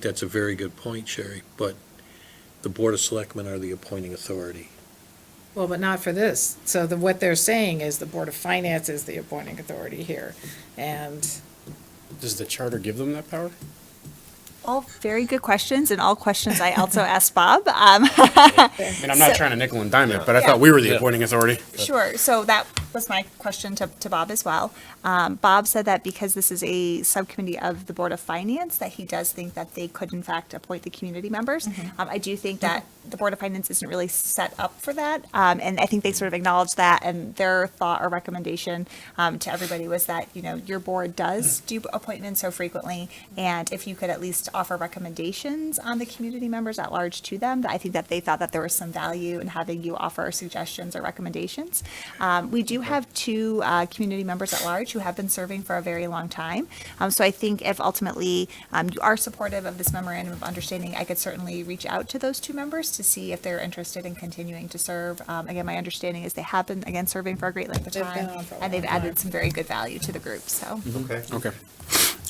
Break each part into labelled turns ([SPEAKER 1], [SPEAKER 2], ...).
[SPEAKER 1] That's a very good point, Sherry, but the Board of Selectmen are the appointing authority.
[SPEAKER 2] Well, but not for this. So the, what they're saying is the Board of Finance is the appointing authority here. And
[SPEAKER 3] Does the charter give them that power?
[SPEAKER 4] All very good questions, and all questions I also asked Bob. Um,
[SPEAKER 3] I mean, I'm not
[SPEAKER 4] So-
[SPEAKER 3] trying to nickel and dime it, but I
[SPEAKER 4] Yeah.
[SPEAKER 3] thought we were the
[SPEAKER 1] Yeah.
[SPEAKER 3] appointing authority.
[SPEAKER 4] sure. So that was my question to, to Bob as well. Um, Bob said that because this is a subcommittee of the Board of Finance, that he does think that they could, in fact, appoint the community members. Um, I do think that the Board of Finance isn't really set up for that. Um, and I think they sort of acknowledged that. And their thought or recommendation um, to everybody was that, you know, your board does do appointments so frequently. And if you could at least offer recommendations on the community members at large to them, I think that they thought that there was some value in having you offer suggestions or recommendations. Um, we do have two uh, community members at large who have been serving for a very long time. Um, so I think if ultimately um, you are supportive of this memorandum of understanding, I could certainly reach out to those two members to see if they're interested in continuing to serve. Um, again, my understanding is they have been, again, serving for a great length of
[SPEAKER 2] They've been
[SPEAKER 4] time.
[SPEAKER 2] on for a
[SPEAKER 4] and they've
[SPEAKER 2] long time.
[SPEAKER 4] added some very good value to the group. So
[SPEAKER 3] Mm-hmm.
[SPEAKER 5] Okay.
[SPEAKER 3] Okay.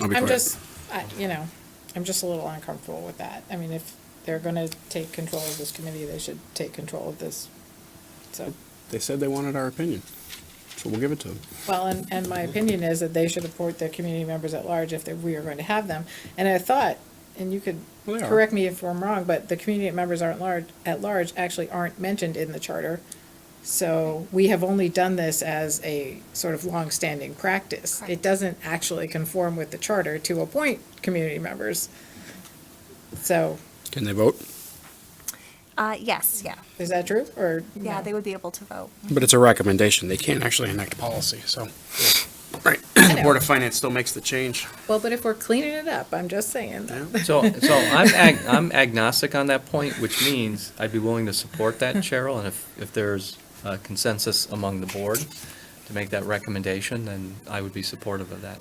[SPEAKER 3] I'll be
[SPEAKER 2] I'm
[SPEAKER 3] quiet.
[SPEAKER 2] just, I- you know, I'm just a little uncomfortable with that. I mean, if they're going to take control of this committee, they should take control of this. So,
[SPEAKER 3] They said they wanted our opinion, so we'll give it to them.
[SPEAKER 2] well, and, and my opinion is that they should appoint their community members at large if they- we are going to have them. And I thought, and you could
[SPEAKER 3] Well, they are.
[SPEAKER 2] correct me if I'm wrong, but the community members aren't large, at large actually aren't mentioned in the charter. So we have only done this as a sort of longstanding practice. It
[SPEAKER 4] Correct.
[SPEAKER 2] doesn't actually conform with the charter to appoint community members. So,
[SPEAKER 3] Can they vote?
[SPEAKER 4] uh, yes, yeah.
[SPEAKER 2] is that true, or?
[SPEAKER 4] Yeah,
[SPEAKER 2] no?
[SPEAKER 4] they would be able to vote.
[SPEAKER 3] But it's a recommendation. They can't actually enact policy, so. Right.
[SPEAKER 2] know.
[SPEAKER 3] The Board of Finance still makes the change.
[SPEAKER 2] Well, but if we're cleaning it up, I'm just saying.
[SPEAKER 6] So, so I'm ag, I'm agnostic on that point, which means I'd be willing to support that, Cheryl, and if, if there's a consensus among the board to make that recommendation, then I would be supportive of that.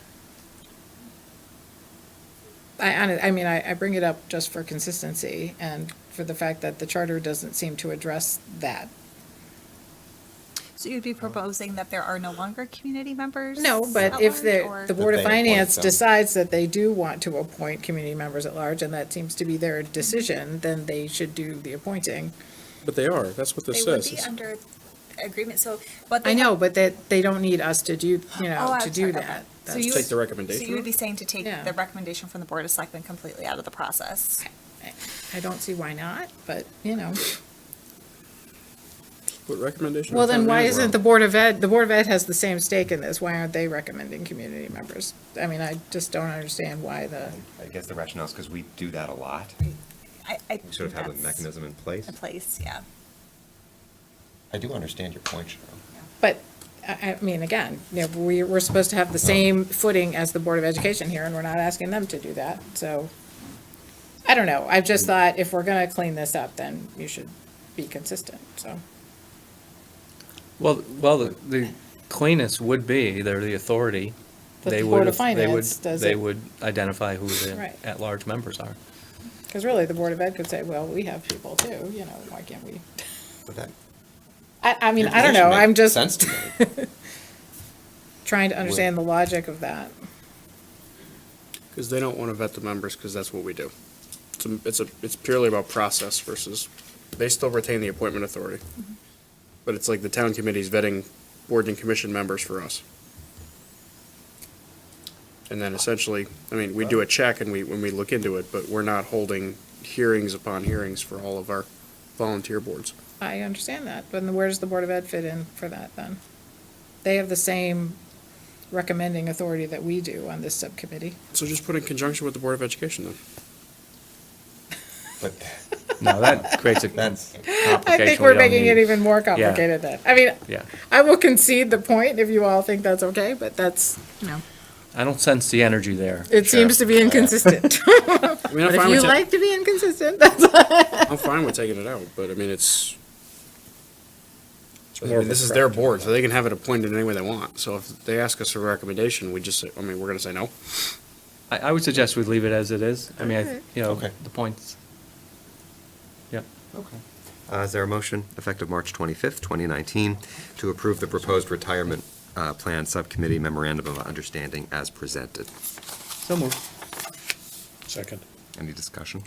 [SPEAKER 2] I, hon- I mean, I, I bring it up just for consistency and for the fact that the charter doesn't seem to address that.
[SPEAKER 4] So you'd be proposing that there are no longer community members?
[SPEAKER 2] No,
[SPEAKER 4] at
[SPEAKER 2] but if
[SPEAKER 4] large,
[SPEAKER 2] the,
[SPEAKER 4] or-
[SPEAKER 2] the Board of
[SPEAKER 5] That they appoint
[SPEAKER 2] Finance
[SPEAKER 5] them.
[SPEAKER 2] decides that they do want to appoint community members at large, and that seems to be their decision, then they should do the appointing.
[SPEAKER 5] But they are, that's what this
[SPEAKER 4] They would be
[SPEAKER 5] says.
[SPEAKER 4] under agreement, so, but they.
[SPEAKER 2] I know, but that, they don't need us to do, you
[SPEAKER 4] Oh,
[SPEAKER 2] know, to
[SPEAKER 4] I'm sorry,
[SPEAKER 2] do
[SPEAKER 4] okay.
[SPEAKER 2] that.
[SPEAKER 4] So
[SPEAKER 2] That's-
[SPEAKER 4] you
[SPEAKER 5] Take the
[SPEAKER 4] would-
[SPEAKER 5] recommendation.
[SPEAKER 4] So you would be saying to take
[SPEAKER 2] Yeah.
[SPEAKER 4] the recommendation from the Board of Selectmen completely out of the process?
[SPEAKER 2] I don't see why not, but, you know.
[SPEAKER 3] What recommendation?
[SPEAKER 2] Well, then why isn't the Board of Ed, the Board of Ed has the same stake in this, why aren't they recommending community members? I mean, I just don't understand why the,
[SPEAKER 5] I guess the rationale is because we do that a lot.
[SPEAKER 4] I, I.
[SPEAKER 5] We sort of
[SPEAKER 4] think
[SPEAKER 5] have a
[SPEAKER 4] that's
[SPEAKER 5] mechanism in place.
[SPEAKER 4] In place, yeah.
[SPEAKER 5] I do understand your point, Cheryl.
[SPEAKER 2] but, I, I mean, again, you know, we, we're supposed to have the same footing as the Board of Education here, and we're not asking them to do that, so. I don't know, I just thought if we're gonna clean this up, then you should be consistent, so.
[SPEAKER 6] Well, well, the- the cleanest would be, they're the authority.
[SPEAKER 2] But
[SPEAKER 6] They
[SPEAKER 2] the
[SPEAKER 6] would
[SPEAKER 2] Board of
[SPEAKER 6] have- they would-
[SPEAKER 2] Finance does
[SPEAKER 6] They
[SPEAKER 2] it.
[SPEAKER 6] would identify who the
[SPEAKER 2] Right.
[SPEAKER 6] at-large members are.
[SPEAKER 2] Cause really, the Board of Ed could say, well, we have people too, you know, why can't we? I, I mean, I don't know, I'm just.
[SPEAKER 5] Sense to me.
[SPEAKER 2] trying to understand the logic of that.
[SPEAKER 3] Because they don't want to vet the members, because that's what we do. It's a, it's a, it's purely about process versus, they still retain the appointment authority. But it's like the town committee's vetting board and commission members for us. And then essentially, I mean, we do a check and we, when we look into it, but we're not holding hearings upon hearings for all of our volunteer boards.
[SPEAKER 2] I understand that, but then where does the Board of Ed fit in for that then? They have the same recommending authority that we do on this subcommittee.
[SPEAKER 3] So just put in conjunction with the Board of Education then.
[SPEAKER 5] But
[SPEAKER 6] Now, that creates a
[SPEAKER 5] that's,
[SPEAKER 2] I think we're making it even more complicated then. I mean,
[SPEAKER 6] Yeah.
[SPEAKER 2] I will concede the point if you all think that's okay, but that's, no.
[SPEAKER 6] I don't sense the energy there.
[SPEAKER 2] It seems to be inconsistent.
[SPEAKER 3] I mean, I'm
[SPEAKER 2] But if
[SPEAKER 3] fine
[SPEAKER 2] you
[SPEAKER 3] with, ta-
[SPEAKER 2] like to be inconsistent, that's,
[SPEAKER 3] I'm fine with taking it out, but I mean, it's,
[SPEAKER 5] I
[SPEAKER 3] I
[SPEAKER 5] mean,
[SPEAKER 3] mean, this is their board, so they can have it appointed any way they want. So if they ask us for a recommendation, we just say, I mean, we're gonna say no.
[SPEAKER 6] I, I would suggest we leave it as it is. I mean, I,
[SPEAKER 2] Alright.
[SPEAKER 6] you know,
[SPEAKER 5] Okay.
[SPEAKER 6] the points. Yeah.
[SPEAKER 5] Uh, Is there a motion, effective March 25th, 2019, to approve the proposed retirement uh, plan subcommittee memorandum of understanding as presented?
[SPEAKER 6] So moved.
[SPEAKER 1] Second.
[SPEAKER 5] Any discussion?